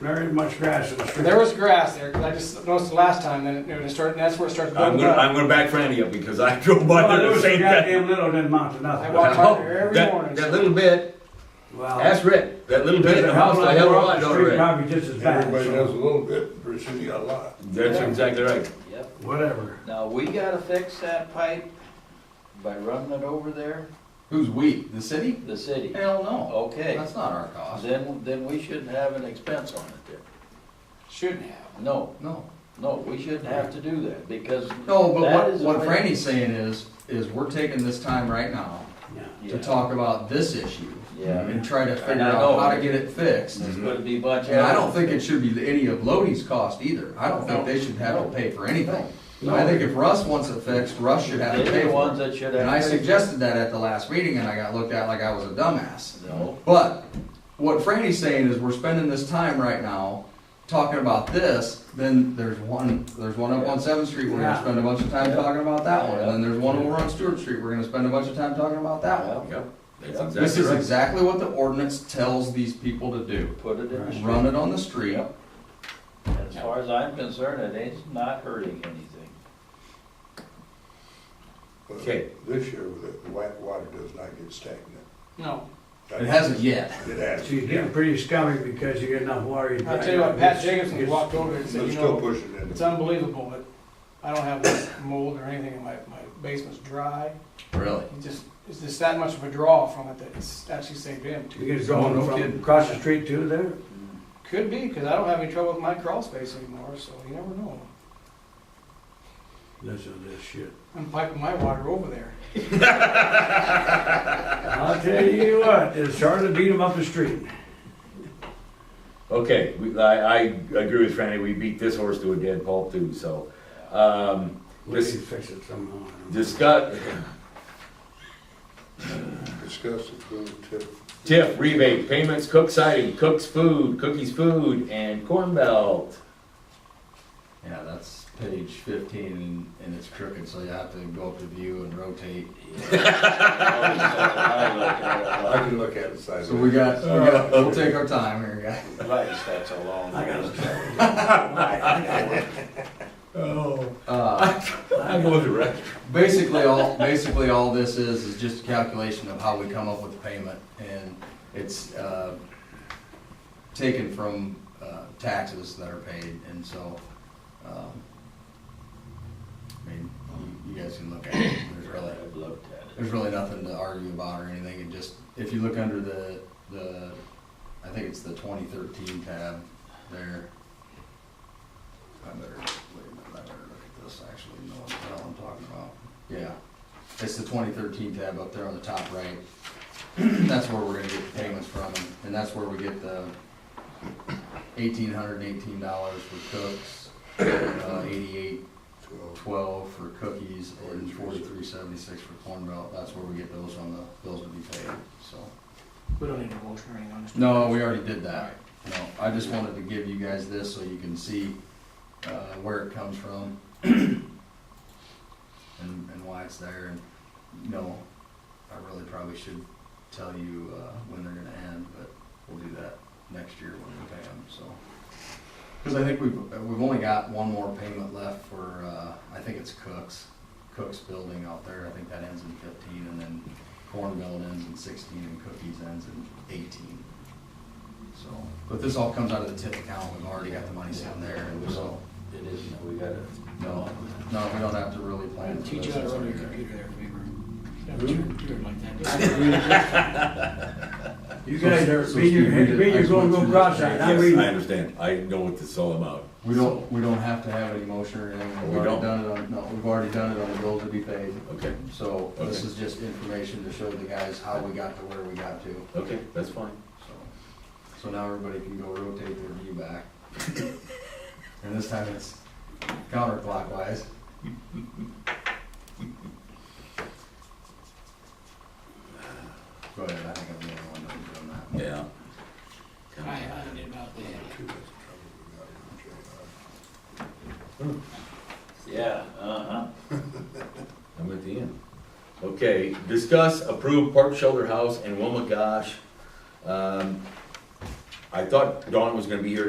very much grass in the street. There was grass there, 'cause I just noticed the last time, then it- it started, that's where it started I'm building gonna, up. I'm gonna back Franny up because I drove by Well, there there the was a same day. goddamn little didn't amount to I nothing. walked Oh, by there every that- morning. That little bit, Well, ask Rick, that little bit in the house, I lot had a more up lot the on street, Rick. Probably just as bad. Everybody so does a little bit, pretty soon you got a lot. That's exactly right. Yep. Whatever. Now, we gotta fix that pipe by running it over there, Who's we? The city? the city. Hell no. Okay, That's not our cost. then, then we shouldn't have an expense on it there. Shouldn't have. No, No. no, we shouldn't have to do that because. No, but that what, is a what way- Franny's saying is, is we're taking this time right now Yeah. to Yeah. talk about this issue. Yeah. And try to And figure I know. out how to get it fixed. This would be much. And I don't think it should be any of Lodi's cost either. I don't think they should have to pay for anything. I think if Russ wants it fixed, Russ should have to They're pay the for ones it. that should have. And I suggested that at the last meeting and I got looked at like I was a dumbass. No, But what Franny's saying is we're spending this time right now talking about this, then there's one, there's one up on Seventh Street, we're gonna Yeah. spend a bunch of time Yeah. talking about that one. And then Yeah. there's one over on Stewart Street, we're gonna spend a bunch of time talking about that one. yeah, Yep, that's Yeah. This exactly is right. exactly what the ordinance tells these people to do. put it in the Run it on the street. Yep. As far as I'm concerned, it ain't not hurting anything. But Okay. This year, the white water does not get stagnant. No. It hasn't yet. It has. So you're getting pretty scummy because you get enough water. you I'll dry tell you what, out. Pat It's- Jacobson it's- walked over and But said, you it's still know, pushing it's it. unbelievable, but I don't have mold or anything in my, my basement's dry. Really? It just, it's just that much of a draw from it that it's actually saved him. You guys Oh, going no from kidding. across the street too there? Could be, because I don't have any trouble with my crawl space anymore, so you never know. Listen to this shit. I'm piping my water over there. I'll tell you what, it's hard to beat 'em up the street. Okay, we, I, I agree with Franny, we beat this horse to a dead pulp too, so. Um, We This- can fix it somehow. I don't know. discuss, Discuss the food tip. TIF rebate, payments, cook siding, cook's food, cookies food, and corn belt. Yeah, that's page fifteen and, and it's crooked, so you have to go up to view and rotate. I can look at it side. So we got, we got, we'll take our time here, guys. Advice, that's a long. I gotta Oh. Uh, I'm going to rest. Basically, all, basically, all this is, is just a calculation of how we come up with the payment, and it's, uh, taken from, uh, taxes that are paid, and so, um, I mean, you you guys can look at it, there's really, I've looked at there's it. really nothing to argue about or anything, it just, if you look under the, the, I think it's the twenty thirteen tab there. I better, wait a minute, I better look at this, actually, know what the hell I'm talking about. Yeah, it's the twenty thirteen tab up there on the top right. That's where we're gonna get the payments from, and that's where we get the eighteen hundred and eighteen dollars for cooks, uh, eighty-eight twelve for cookies and forty-three seventy-six for corn belt, that's where we get those on the bills to be paid, so. We don't need a motion or anything on this. No, we already did that, no, I just wanted to give you guys this so you can see, uh, where it comes from. And, and why it's there, and, you know, I really probably should tell you, uh, when they're gonna end, but we'll do that next year when we pay them, so. Cause I think we've, we've only got one more payment left for, uh, I think it's Cook's, Cook's building out there, I think that ends in fifteen, and then Corn Belt ends in sixteen, and Cookies ends in eighteen. So, but this all comes out of the tip account, we've already got the money sitting there, and so, It isn't, that we gotta. no, no, we don't have to really plan for this. Teach you how to it's run already your there. computer there, Weaver. Do it like that. You So- guys are, so me, you're, Steve, we did- me, I you're just gonna went go through cross this. eyed I'm Yes, I reading. understand, I know what this is all about. We don't, we don't have to have any motion or anything, We we've already don't. done it on, no, we've already done it on the bills to be paid. Okay, So this Okay. is just information to show the guys how we got to where we got to, okay, that's fine. so. So now everybody can go rotate their view back. And this time it's counterclockwise. Go ahead, I think I'm the only one that's doing that. Yeah. I, I did about that. Yeah, uh-huh. I'm at the end. Okay, discuss, approve Park Shelter House and Wilma Gosh. Um, I thought Dawn was gonna be here